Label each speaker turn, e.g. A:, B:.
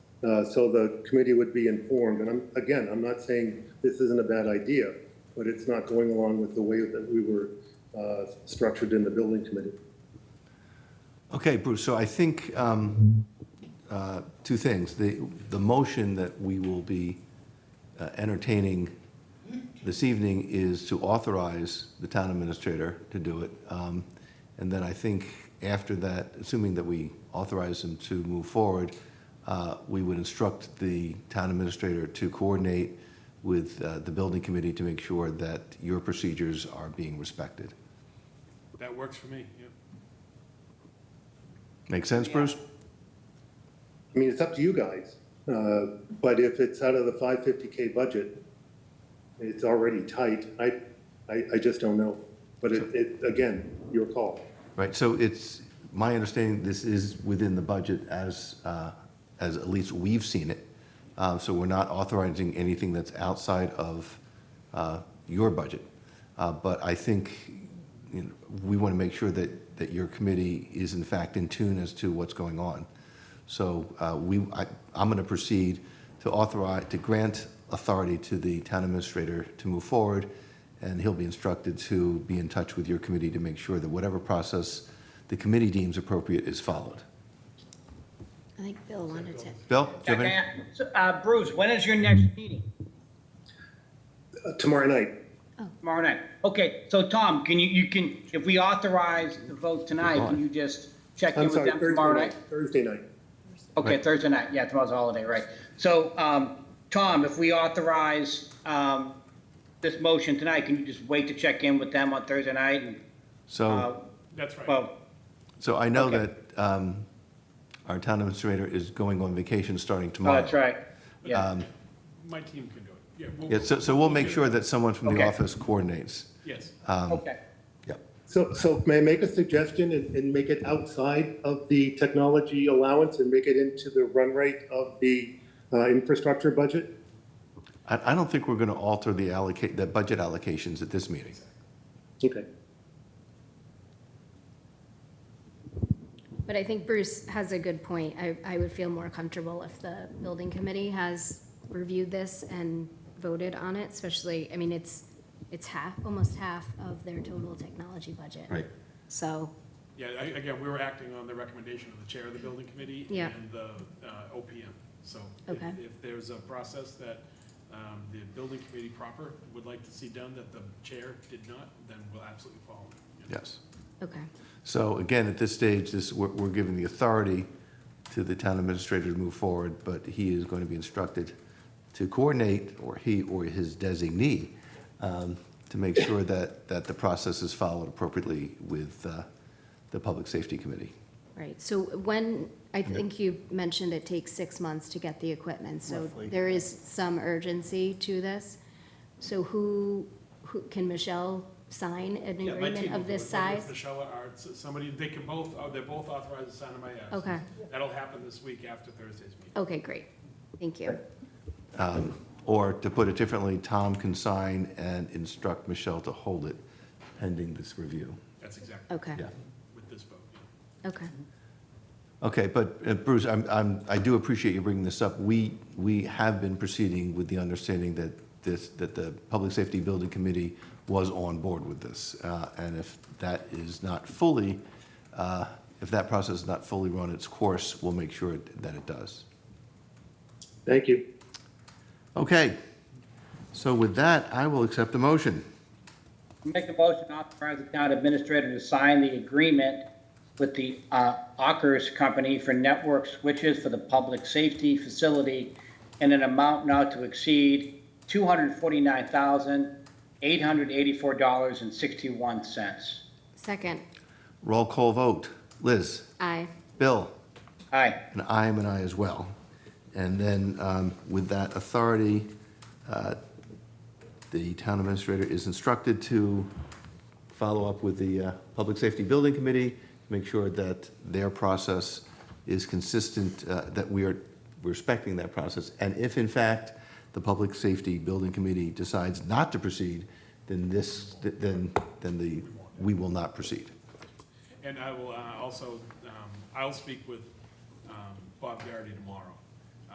A: uh, so the committee would be informed. And I'm, again, I'm not saying this isn't a bad idea, but it's not going along with the way that we were uh, structured in the building committee.
B: Okay, Bruce, so I think um, uh, two things. The, the motion that we will be uh, entertaining this evening is to authorize the town administrator to do it. Um, And then I think after that, assuming that we authorize him to move forward, uh, we would instruct the town administrator to coordinate with uh, the building committee to make sure that your procedures are being respected.
C: That works for me, yeah.
B: Make sense, Bruce?
A: I mean, it's up to you guys, uh, but if it's out of the 550K budget, it's already tight. I, I, I just don't know. But it, it, again, your call.
B: Right, so it's, my understanding, this is within the budget as, uh, as at least we've seen it. Uh, So we're not authorizing anything that's outside of uh, your budget. Uh, But I think, you know, we want to make sure that, that your committee is in fact in tune as to what's going on. So uh, we, I, I'm going to proceed to authorize, to grant authority to the town administrator to move forward, and he'll be instructed to be in touch with your committee to make sure that whatever process the committee deems appropriate is followed.
D: I think Bill wanted to.
B: Bill? do you have any-
E: Uh, Bruce, when is your next meeting?
A: Uh, Tomorrow night,
E: Tomorrow night. Okay, so Tom, can you, you can, if we authorize the vote tonight, can you just check in
A: I'm
E: with
A: sorry,
E: them
A: Thursday
E: tomorrow night?
A: night, Thursday night.
E: Okay, Thursday night, yeah, tomorrow's a holiday, right. So, um, Tom, if we authorize, um, this motion tonight, can you just wait to check in with them on Thursday night? And, uh,
B: So,
C: That's right.
E: Well,
B: so I know
E: okay.
B: that um, our town administrator is going on vacation starting
E: oh,
B: tomorrow.
E: that's right, yeah.
C: My team can do it. Yeah. we'll-
B: Yeah, so, so we'll make Uh,
C: do it.
B: sure that someone from the
E: Okay.
B: office coordinates.
C: Yes.
E: Okay,
B: Yep.
A: So, so may I make a suggestion and, and make it outside of the technology allowance and make it into the run rate of the uh, infrastructure budget?
B: I, I don't think we're going to alter the allocate, the budget allocations at this meeting.
A: Okay.
D: But I think Bruce has a good point. I, I would feel more comfortable if the building committee has reviewed this and voted on it, especially, I mean, it's, it's half, almost half of their total technology budget. So,
C: Yeah, I- again, we were acting on the recommendation of the chair of the building committee
D: Yeah.
C: and the uh, OPM. So if-
D: Okay.
C: if there's a process that um, the building committee proper would like to see done that the chair did not, then we'll absolutely follow it. yeah.
B: Yes.
D: okay.
B: So again, at this stage, this, we're, we're giving the authority to the town administrator to move forward, but he is going to be instructed to coordinate, or he or his designee, um, to make sure that, that the process is followed appropriately with uh, the Public Safety Committee.
D: Right, so when, I think you mentioned it takes six months to get the equipment, so there is some urgency to this. So who, who, can Michelle sign an
C: Yeah, my team
D: agreement
C: will
D: of
C: do it,
D: this
C: whether it's
D: size?
C: Michelle or Art, s- somebody, they can both, oh, they're both authorized to sign in my absence.
D: Okay.
C: That'll happen this week after Thursday's meeting.
D: Okay, great, thank you.
B: Or to put it differently, Tom can sign and instruct Michelle to hold it pending this review.
C: That's exactly
D: Okay,
B: Yeah.
C: with this vote. yeah.
D: okay.
B: Okay, but uh, Bruce, I'm, I'm, I do appreciate you bringing this up. We, we have been proceeding with the understanding that this, that the Public Safety Building Committee was on board with this. Uh, and if that is not fully, uh, if that process is not fully run its course, we'll make sure that it does.
A: Thank you.
B: Okay, so with that, I will accept the motion.
E: make the motion to authorize the town administrator to sign the agreement with the, uh, Ockers Company for network switches for the public safety facility in an amount not to exceed two hundred forty-nine thousand, eight hundred eighty-four dollars and sixty-one cents.
D: Second,
B: Roll call vote. Liz?
D: aye.
B: Bill?
E: Aye.
B: And I am an I as well. And then um, with that authority, uh, the town administrator is instructed to follow up with the uh, Public Safety Building Committee, make sure that their process is consistent, uh, that we are respecting that process. And if in fact, the Public Safety Building Committee decides not to proceed, then this, then, then the, we will not proceed.
C: And I will uh, also, um, I'll speak with um, Bob Garrity tomorrow